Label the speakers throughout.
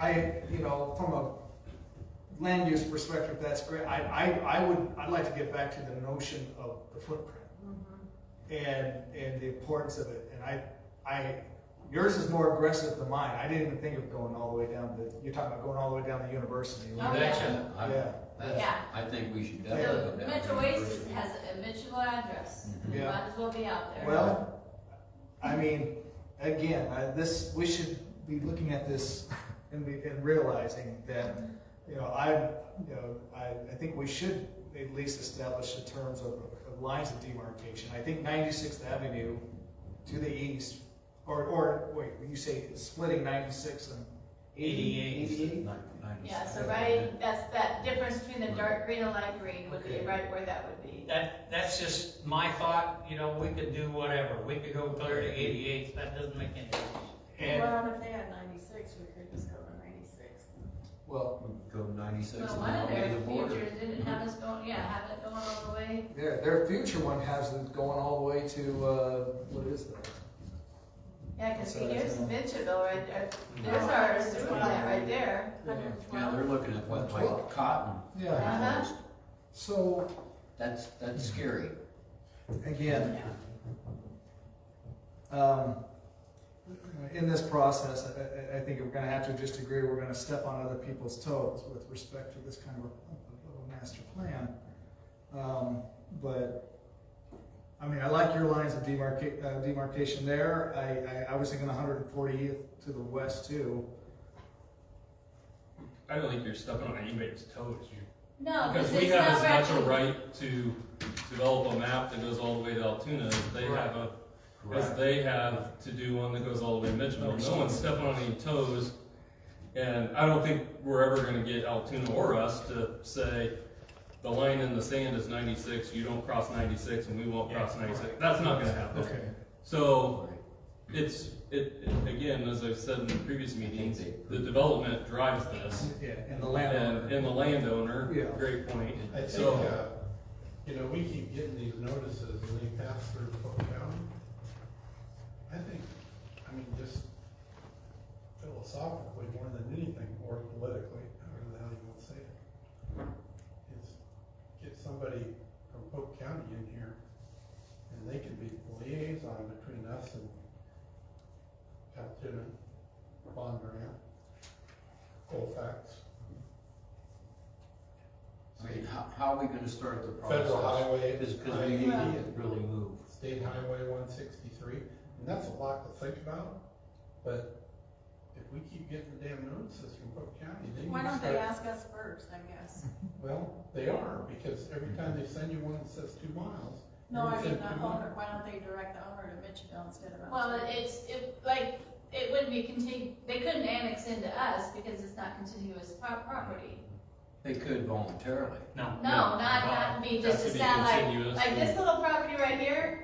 Speaker 1: I, you know, from a land use perspective, that's great. I, I, I would, I'd like to get back to the notion of the footprint
Speaker 2: Mm-hmm.
Speaker 1: and, and the importance of it. And I, I, yours is more aggressive than mine. I didn't even think of going all the way down the, you're talking about going all the way down the university.
Speaker 2: Oh,
Speaker 3: That's
Speaker 2: yeah.
Speaker 3: a- I-
Speaker 1: Yeah.
Speaker 3: that's-
Speaker 2: Yeah.
Speaker 3: I think we should definitely go
Speaker 2: So
Speaker 3: down. to
Speaker 2: Metro
Speaker 3: University.
Speaker 2: Oasis has a Mitchell address,
Speaker 3: Mhm.
Speaker 2: might
Speaker 1: Yeah.
Speaker 2: as well be out there.
Speaker 1: Well, I mean, again, I, this, we should be looking at this and be, and realizing that, you know, I, you know, I, I think we should at least establish the terms of, of lines of demarcation. I think Ninety-Sixth Avenue to the east, or, or, wait, you say splitting Ninety-Six and eighty-eight?
Speaker 3: Eighty-eight? Nin- ninety-seven.
Speaker 2: Yeah, so right, that's that difference between the dark green and light green would be
Speaker 1: Okay.
Speaker 2: right where that would be.
Speaker 4: That, that's just my thought, you know, we could do whatever, we could go clear to eighty-eight, that doesn't make any difference.
Speaker 1: And,
Speaker 5: if they had ninety-six, we could just go to ninety-six.
Speaker 1: well,
Speaker 3: We could Go ninety-six
Speaker 2: No
Speaker 3: and
Speaker 2: one
Speaker 3: all
Speaker 2: of
Speaker 3: the way to
Speaker 2: their
Speaker 3: the border.
Speaker 2: futures didn't have us going, yeah, have it going all the way.
Speaker 1: their, their future one has it going all the way to, uh, what is that?
Speaker 2: Yeah, cause
Speaker 1: So
Speaker 2: see,
Speaker 1: that's
Speaker 2: here's
Speaker 1: not-
Speaker 2: Mitchellville right there, there's
Speaker 3: No.
Speaker 2: our sewer plant right there.
Speaker 3: Yeah, they're looking at what, like
Speaker 1: Twelve.
Speaker 3: cotton.
Speaker 1: Yeah,
Speaker 2: Uh-huh.
Speaker 1: so,
Speaker 3: That's, that's scary.
Speaker 1: again, um, in this process, I, I- I think we're gonna have to just agree, we're gonna step on other people's toes with respect to this kind of a, a master plan. Um, but, I mean, I like your lines of demarca- uh, demarcation there, I, I, I was thinking hundred and fortieth to the west too.
Speaker 6: I don't think you're stepping on anybody's toes. You-
Speaker 2: No,
Speaker 6: Because
Speaker 2: cause
Speaker 6: we
Speaker 2: it's
Speaker 6: have
Speaker 2: not
Speaker 6: as much
Speaker 2: right.
Speaker 6: a right to develop a map that goes all the way to Altoona as they have a, as they have to do one that goes all the way to Mitchell. No one's stepping on any toes. And I don't think we're ever gonna get Altoona or us to say, the line in the sand is ninety-six, you don't cross ninety-six and we won't cross ninety-six. That's not gonna happen.
Speaker 1: Okay.
Speaker 6: So it's, it, it- again, as I've said in previous meetings, the development drives this.
Speaker 1: Yeah, and the
Speaker 6: And,
Speaker 1: landowner.
Speaker 6: and the
Speaker 1: Yeah.
Speaker 6: landowner, great point.
Speaker 7: I think,
Speaker 6: So-
Speaker 7: uh, you know, we keep getting these notices and they pass through Polk County. I think, I mean, just philosophically more than anything, or politically, however the hell you want to say it, is get somebody from Polk County in here and they can be the liaison between us and Altoona, Bond Grant, Colfax.
Speaker 3: I mean, how, how are we gonna start the process?
Speaker 7: Federal highway.
Speaker 3: Cause, 'cause E we need to really move.
Speaker 7: State Highway one sixty-three, and that's a lot to think about, but if we keep getting the damn notices from Cook County, they
Speaker 5: Why
Speaker 7: need to
Speaker 5: don't they
Speaker 7: start.
Speaker 5: ask us first, I guess?
Speaker 7: Well, they are, because every time they send you one that says two miles.
Speaker 5: No,
Speaker 7: you
Speaker 5: I mean,
Speaker 7: send
Speaker 5: the
Speaker 7: two miles.
Speaker 5: owner, why don't they direct the owner to Mitchellville instead of?
Speaker 2: Well,
Speaker 5: Altoona?
Speaker 2: it's, it, like, it wouldn't be contin, they couldn't annex into us because it's not contiguous pro- property.
Speaker 3: They could voluntarily.
Speaker 4: No.
Speaker 2: No, not, not be just a
Speaker 6: Has to be
Speaker 2: satellite,
Speaker 6: continuous
Speaker 2: like
Speaker 6: and-
Speaker 2: this little property right here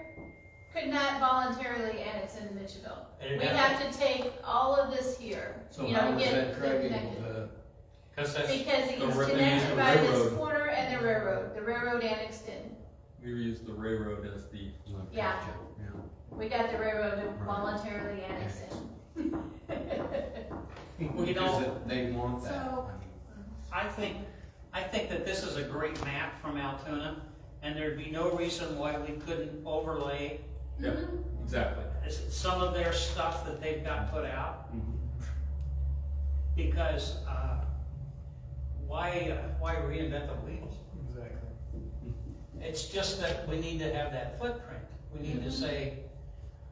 Speaker 2: could not voluntarily annex into Mitchellville.
Speaker 4: It'd
Speaker 2: We have to take all of this here,
Speaker 3: So
Speaker 2: you
Speaker 3: how
Speaker 2: know,
Speaker 3: was
Speaker 2: get
Speaker 3: that
Speaker 2: it
Speaker 3: Craig able
Speaker 2: connected.
Speaker 3: to,
Speaker 4: Cause that's,
Speaker 2: Because it
Speaker 6: the
Speaker 2: was
Speaker 6: ra- they used
Speaker 2: connected
Speaker 6: the
Speaker 2: by this
Speaker 6: railroad.
Speaker 2: corner and the railroad, the railroad annexed in.
Speaker 6: We use the railroad as the,
Speaker 2: Yeah.
Speaker 3: Yeah.
Speaker 2: We got the railroad to voluntarily annex in.
Speaker 4: Well, you know-
Speaker 3: Because They want that. I
Speaker 5: So-
Speaker 3: mean,
Speaker 4: I think, I think that this is a great map from Altoona, and there'd be no reason why we couldn't overlay
Speaker 6: yeah,
Speaker 2: Mm-hmm.
Speaker 6: exactly.
Speaker 4: s- some of their stuff that they've got put out. Because, uh, why, uh, why reinvent the wheel?
Speaker 1: Exactly.
Speaker 4: It's just that we need to have that footprint. We need to say,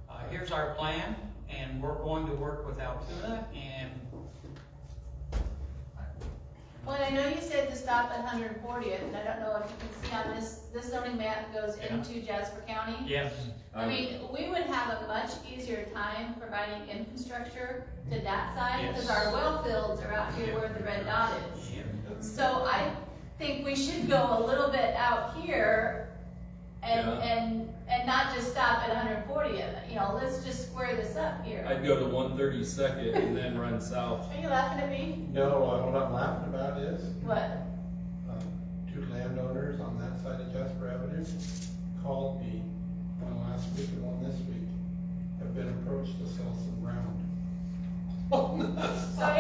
Speaker 4: uh, here's our plan, and we're going to work with Altoona, and
Speaker 2: Well, I know you said to stop at hundred and fortieth, and I don't know if you can see on this, this zoning map goes
Speaker 4: Yeah.
Speaker 2: into Jasper County.
Speaker 4: yes,
Speaker 2: I mean, we would have a much easier time providing infrastructure to that side, because
Speaker 4: Yes.
Speaker 2: our well fields are out here where the red dot is.
Speaker 4: yeah.
Speaker 2: So I think we should go a little bit out here and,
Speaker 6: Yeah.
Speaker 2: and, and not just stop at hundred and fortieth, you know, let's just square this up here.
Speaker 6: Um, I'd go to one thirty-second and then run south.
Speaker 2: Are you laughing at me?
Speaker 7: No, uh, what I'm laughing about is,
Speaker 2: What?
Speaker 7: um, two landowners on that side of Jasper Avenue called me, one last week and one this week, have been approached to sell some ground. On that
Speaker 2: So